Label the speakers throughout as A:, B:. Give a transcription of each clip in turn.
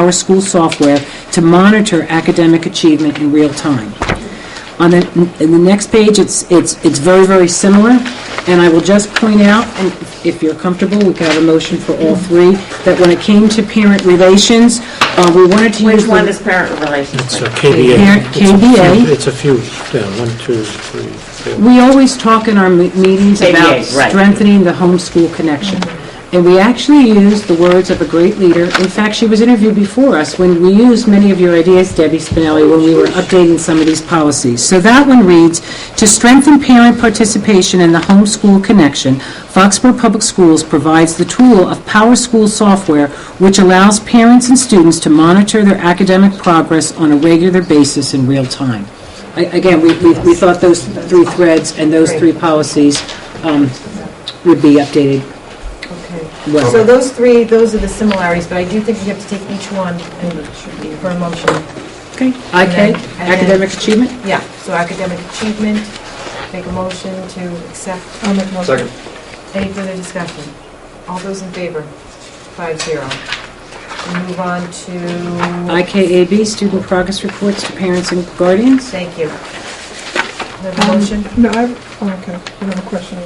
A: our school software to monitor academic achievement in real time. On the, in the next page, it's, it's, it's very, very similar, and I will just point out, and if you're comfortable, we could have a motion for all three, that when it came to parent relations, uh, we wanted to use
B: Which
A: the...
B: one is parent relations?
C: So KBA.
A: Parent-
C: It's a few-
A: KBA.
C: It's a few, yeah, one, two, three, four.
A: We always talk in our me- meetings
B: KBA,
A: about
B: right.
A: strengthening the homeschool connection. And we actually used the words of a great leader. In fact, she was interviewed before us when we used many of your ideas, Debbie Spinelli, when we were updating some of these policies. So that one reads, "To strengthen parent participation in the homeschool connection, Foxborough Public Schools provides the tool of Power School software, which allows parents and students to monitor their academic progress on a regular basis in real time." I- Again, we, we we thought those three threads and those three policies um, would be updated
D: Okay.
A: well.
D: So those three, those are the similarities, but I do think we have to take each one and for a motion.
A: Okay.
D: And then-
A: IK,
D: and then-
A: academic achievement?
D: Yeah, so academic achievement, make a motion to accept. I'll make motion. Any further discussion? All those in favor? Five zero. We move on to...
A: IKAB, student progress reports to parents and guardians?
D: Thank you. We have a motion?
E: No, I, have- oh, okay, you have a question.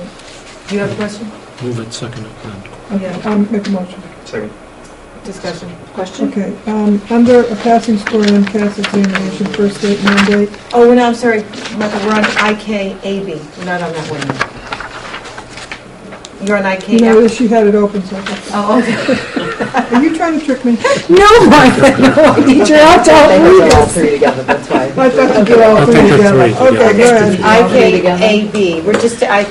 D: Do you have a question?
C: Move it, second it, and
E: Okay, I'll make a motion.
F: Second.
D: Discussion? Question?
E: Okay, um, under a passing score and MCAS examination, first date mandate,
D: Oh, no, I'm sorry, Michael, we're on IKAB, we're not on that one. You're on IK now?
E: no, she had it open, so,
D: Oh, okay.
E: are you trying to trick me?
A: No, Martha, no, teacher, I'll
G: They
A: tell
G: put
A: you.
G: all three together, that's why.
E: I thought you did all
C: I
E: three
C: think they're
E: together.
C: three together.
E: Okay, go ahead.
D: IKAB, we're just, I,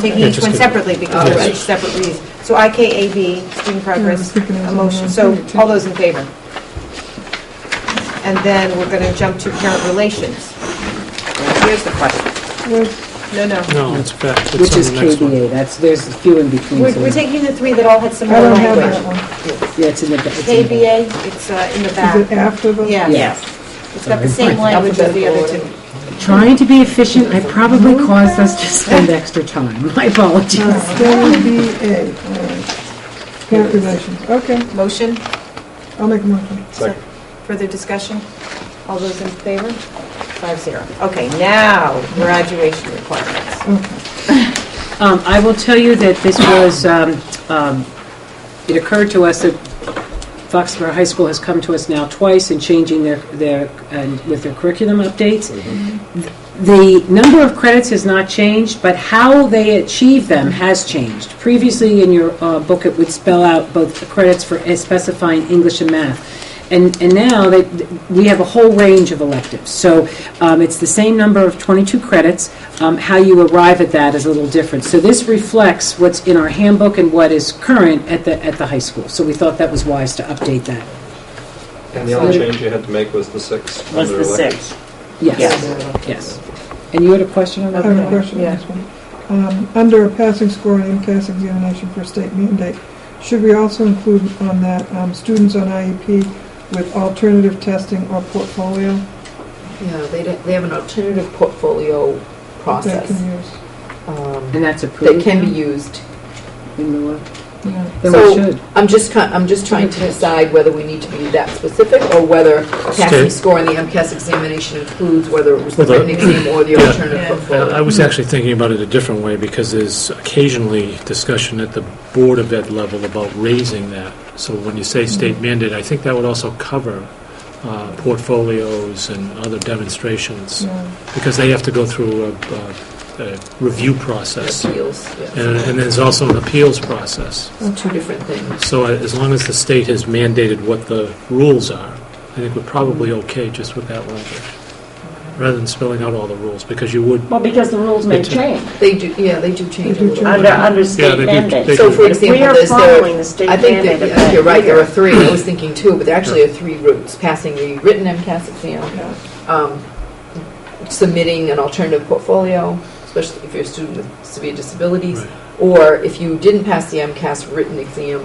D: taking
C: Yeah,
D: each
C: just
D: one
C: good.
D: separately because
C: Yes.
D: they're each separate reads. So IKAB, student progress,
E: thinking it was
D: a
E: on
D: motion,
E: the
D: so
E: thing, too.
D: all those in favor? And then we're going to jump to parent relations. And Here's the question.
E: Where's-
D: No, no.
C: No, it's back, it's on
A: Which is
C: the next one.
A: KBA, that's, there's a few in between.
D: We're
A: so-
D: we're taking the three that all had
E: I
D: similar
E: don't have
D: language.
E: that one.
A: Yeah, it's in the... it's in the-
D: KBA, it's uh, in the
E: Is it
D: back.
E: after the?
D: Yeah. It's got the same language as the other two.
A: Trying to be efficient, I probably caused us to spend extra time. My
E: Uh,
A: apologies.
E: KBA, all right. Parent relations, okay,
D: Motion,
E: I'll make a motion.
F: Second.
D: further discussion? All those in favor? Five zero. Okay, now graduation requirements.
A: Um, I will tell you that this was, um, um, it occurred to us that Foxborough High School has come to us now twice in changing their, their, and with their curriculum updates. The number of credits has not changed, but how they achieve them has changed. Previously, in your uh, book, it would spell out both the credits for specifying English and math. And, and now, they, we have a whole range of electives. So um, it's the same number of 22 credits. Um, How you arrive at that is a little different. So this reflects what's in our handbook and what is current at the, at the high school. So we thought that was wise to update that.
F: And the only change you had to make was the six.
B: Was
F: under
B: the
F: electives.
B: six.
A: Yes, yes. And you had a question on
E: I
A: that?
E: have a question on this one. Uh, Um, Under a passing score and MCAS examination for state mandate, should we also include on that um, students on IEP with alternative testing or portfolio
G: Yeah, they don't, they have an alternative portfolio
E: that
G: process
E: can use?
G: um,
A: And that's
G: that
A: approved?
G: can be used.
A: In the law?
E: Yeah.
A: Then
G: So,
A: we should.
G: I'm just, ki- I'm just trying to decide whether we need to be that specific or whether passing
C: State.
G: score and the MCAS examination includes whether it was the
C: Well, the-
G: written exam or the
C: Yeah.
G: alternative
D: Yeah.
G: portfolio.
C: I I was actually thinking about it a different way, because there's occasionally discussion at the Board of Ed level about raising that. So when you say state mandate, I think that would also cover uh, portfolios and other demonstrations,
E: Yeah.
C: because they have to go through a- a a review process.
G: Appeals, yeah.
C: And and there's also an appeals process.
G: It's two different things.
C: So I- as long as the state has mandated what the rules are, I think we're probably
B: Mm-hmm.
C: okay just with that language, rather than spelling out all the rules, because you would,
B: Well, because the rules may
C: It's a-
B: change
G: They do, yeah, they do change a
E: do
G: little.
E: change.
B: under, under
C: Yeah,
B: state
C: they do-
B: mandate.
C: they
G: So
C: do.
G: for
B: If we
G: example,
B: are
G: there's the,
B: following the state
G: I think
B: mandate
G: that,
B: of
G: yes, you're right, there are
B: that
G: three, I was thinking two, but there actually are three routes, passing the written MCAS exam, um, submitting an alternative portfolio, especially if you're a student with severe disabilities,
C: Right.
G: or if you didn't pass the MCAS written exam,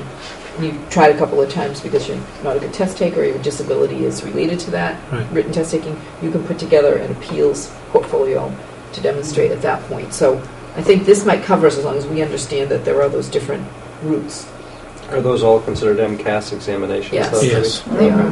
G: you tried a couple of times because you're not a good test taker, your disability is related to that,
C: Right.
G: written test taking, you can put together an appeals portfolio to demonstrate at that point. So I think this might cover us as long as we understand that there are those different routes.
F: Are those all considered MCAS examinations?
G: Yes.
F: though, Debbie?
C: Yes.
G: They are.